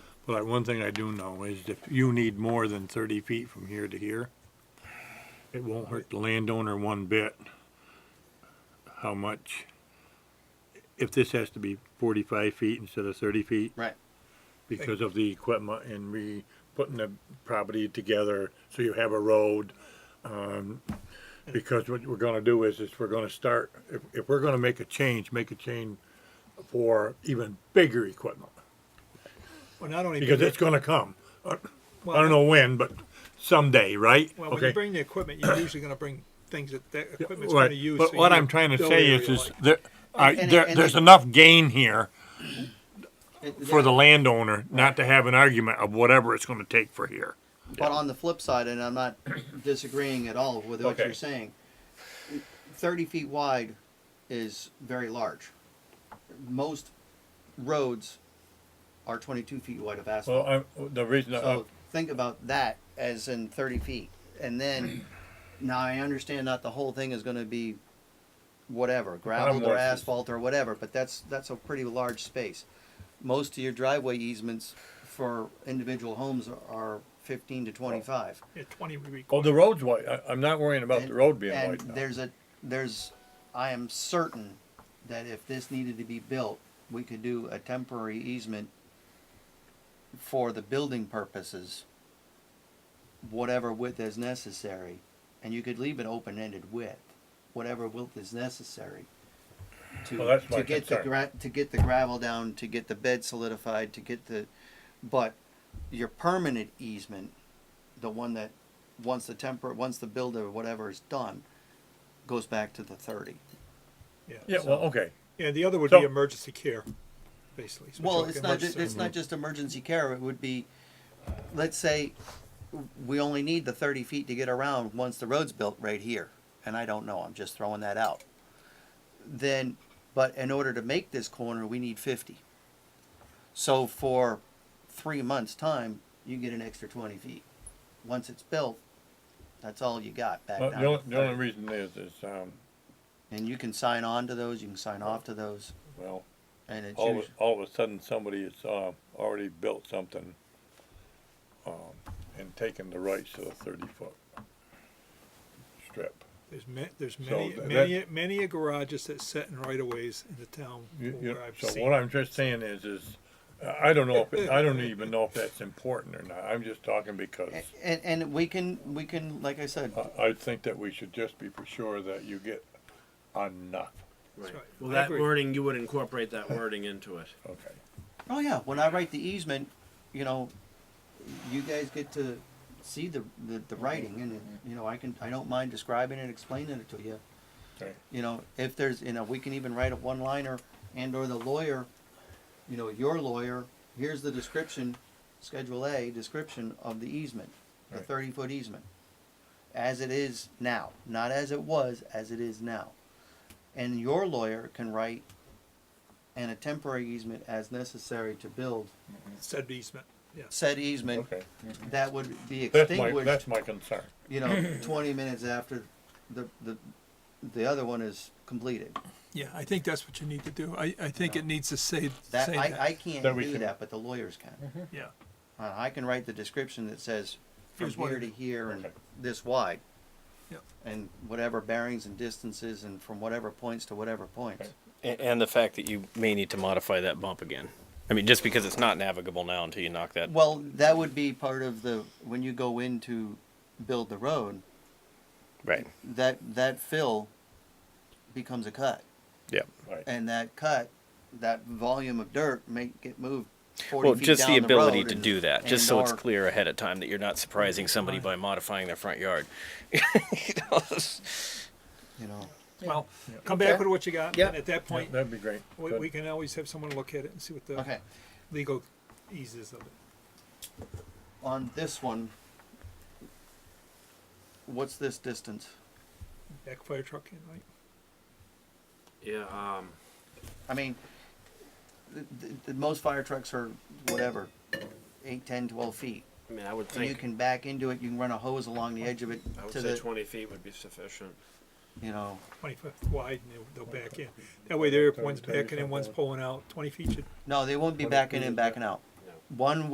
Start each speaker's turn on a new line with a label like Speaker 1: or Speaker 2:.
Speaker 1: But one thing I do know is if you need more than thirty feet from here to here, it won't hurt the landowner one bit how much, if this has to be forty-five feet instead of thirty feet
Speaker 2: Right.
Speaker 1: because of the equipment and re, putting the property together so you have a road. Um, because what we're gonna do is, is we're gonna start, if, if we're gonna make a change, make a change for even bigger equipment.
Speaker 3: Well, not only
Speaker 1: Because
Speaker 3: do
Speaker 1: it's gonna come. I I
Speaker 3: Well,
Speaker 1: don't know when, but someday, right?
Speaker 3: Well, when
Speaker 1: Okay.
Speaker 3: you bring the equipment, you're usually gonna bring things that that equipment's
Speaker 1: Right.
Speaker 3: gonna use.
Speaker 1: But
Speaker 3: so
Speaker 1: what
Speaker 3: you
Speaker 1: I'm trying to
Speaker 3: don't
Speaker 1: say
Speaker 3: really
Speaker 1: is, is
Speaker 3: like-
Speaker 1: there, I-
Speaker 2: And-
Speaker 1: there,
Speaker 2: and-
Speaker 1: there's enough gain here
Speaker 2: It-
Speaker 1: for the landowner not to have an argument of whatever it's gonna take for here.
Speaker 2: But on the flip side, and I'm not disagreeing at all with what
Speaker 1: Okay.
Speaker 2: you're saying, 30 feet wide is very large. Most roads are 22 feet wide of asphalt.
Speaker 1: Well, I, the reason, uh,
Speaker 2: so think about that as in 30 feet. And then, now I understand not the whole thing is going to be whatever, gravel or
Speaker 1: with you.
Speaker 2: asphalt or whatever, but that's that's a pretty large space. Most of your driveway easements for individual homes are 15 to 25.
Speaker 3: Yeah, Twenty we require.
Speaker 1: Oh, the road's wide. I, I'm not worrying about the
Speaker 2: And-
Speaker 1: road being
Speaker 2: and
Speaker 1: wide now.
Speaker 2: There's a, there's, I am certain that if this needed to be built, we could do a temporary easement for the building purposes, whatever width is necessary, and you could leave it open-ended width, whatever width is necessary. To,
Speaker 1: Well, that's my
Speaker 2: to get the
Speaker 1: concern.
Speaker 2: gra- to get the gravel down, to get the bed solidified, to get the, but your permanent easement, the one that once the temper, once the builder, whatever is done, goes back to the thirty.
Speaker 1: Yeah, well, okay.
Speaker 3: Yeah, the other would
Speaker 1: So-
Speaker 3: be emergency care, basically. So
Speaker 2: Well,
Speaker 3: like
Speaker 2: it's not,
Speaker 3: emergency-
Speaker 2: it's not just emergency care, it would be, let's say, we only need the thirty feet to get around once the road's built right here, and I don't know, I'm just throwing that out. Then, but in order to make this corner, we need fifty. So for three months' time, you get an extra twenty feet. Once it's built, that's all you got back
Speaker 4: Well,
Speaker 2: down.
Speaker 4: the only,
Speaker 2: to
Speaker 4: the only
Speaker 2: 30.
Speaker 4: reason is, is, um,
Speaker 2: And you can sign on to those, you can sign off to those,
Speaker 4: well,
Speaker 2: and it's
Speaker 1: Oh,
Speaker 4: all, of-
Speaker 2: usu-
Speaker 4: all of a sudden, somebody has, uh, already built something, um, and taken the rights to the thirty foot strip.
Speaker 3: There's ma- there's
Speaker 4: So
Speaker 3: many,
Speaker 4: that-
Speaker 3: many, many a garages that set in right of ways in the town
Speaker 4: You- you-
Speaker 3: where I've
Speaker 4: so
Speaker 3: seen.
Speaker 4: what I'm just saying is, is, uh, I don't know if, it- I don't even know if that's important or not, I'm just talking because
Speaker 2: A- and, and we can, we can, like I said,
Speaker 4: I, I think that we should just be for sure that you get enough,
Speaker 5: Right.
Speaker 3: right.
Speaker 5: Well,
Speaker 3: I
Speaker 5: that
Speaker 3: agree.
Speaker 5: wording, you would incorporate that wording into it.
Speaker 4: okay?
Speaker 2: Oh yeah, when I write the easement, you know, you guys get to see the, the, the writing and, you know, I can, I don't mind describing and explaining it to you.
Speaker 4: Okay.
Speaker 2: You know, if there's, you know, we can even write a one-liner and or the lawyer, you know, your lawyer, here's the description, Schedule A, description of the easement, the
Speaker 4: Right.
Speaker 2: thirty-foot easement. As it is now, not as it was, as it is now. And your lawyer can write and a temporary easement as necessary to build
Speaker 3: Said easement, yeah.
Speaker 2: said easement
Speaker 4: Okay,
Speaker 2: that would be
Speaker 4: that's my, that's
Speaker 2: extinguished,
Speaker 4: my concern,
Speaker 2: you know, twenty minutes after the, the, the other one is completed.
Speaker 6: Yeah, I think that's what you need to do. I, I think it needs to say,
Speaker 2: That,
Speaker 6: say
Speaker 2: I,
Speaker 6: that. Mm-hmm.
Speaker 2: I can't
Speaker 4: That we
Speaker 2: do
Speaker 4: can-
Speaker 2: that, but the lawyers can.
Speaker 6: Yeah.
Speaker 2: Uh, I can write the description that says from
Speaker 6: Here's what
Speaker 2: here
Speaker 6: it
Speaker 2: to
Speaker 6: is.
Speaker 2: here and
Speaker 4: Okay.
Speaker 2: this wide.
Speaker 6: Yep.
Speaker 2: And whatever bearings and distances and from whatever points to whatever points.
Speaker 7: And, and the fact that you may need to modify that bump again. I mean, just because it's not navigable now until you knock that.
Speaker 2: Well, that would be part of the, when you go in to build the road,
Speaker 7: Right.
Speaker 2: that, that fill becomes a cut.
Speaker 7: Yep.
Speaker 4: right?
Speaker 2: and that cut, that volume of dirt may get moved. 40
Speaker 7: Well,
Speaker 2: feet
Speaker 7: just
Speaker 2: down
Speaker 7: the ability
Speaker 2: road
Speaker 7: to
Speaker 2: and-
Speaker 7: do that, just
Speaker 2: and
Speaker 7: so it's
Speaker 2: or-
Speaker 7: clear ahead of time that you're not surprising somebody by modifying their front yard. You know, it's-
Speaker 2: You know,
Speaker 3: Well, come back with what you got, and at that point,
Speaker 4: That'd be great.
Speaker 3: we,
Speaker 4: Good.
Speaker 3: we can always have someone look at it and see what the
Speaker 2: okay.
Speaker 3: legal eases of it.
Speaker 2: On this one, what's this distance?
Speaker 3: Back fire truck in, right?
Speaker 5: Yeah, um,
Speaker 2: I mean, the, the, the most fire trucks are whatever, 8, 10, 12 feet.
Speaker 5: I mean, I would
Speaker 2: And you
Speaker 5: think,
Speaker 2: can back into it. You can run a hose along the edge of it
Speaker 5: I would
Speaker 2: to
Speaker 5: say
Speaker 2: the,
Speaker 5: twenty feet would be sufficient.
Speaker 2: you know.
Speaker 3: Twenty-fifth wide, and they'll- they'll back in. That way, there, one's
Speaker 4: Thirty, thirty
Speaker 3: backing in, one's
Speaker 4: something.
Speaker 3: pulling out. Twenty feet should
Speaker 2: No, they won't be
Speaker 4: What if
Speaker 2: backing
Speaker 4: we
Speaker 2: in,
Speaker 4: did that?
Speaker 2: backing out.
Speaker 5: No.
Speaker 2: One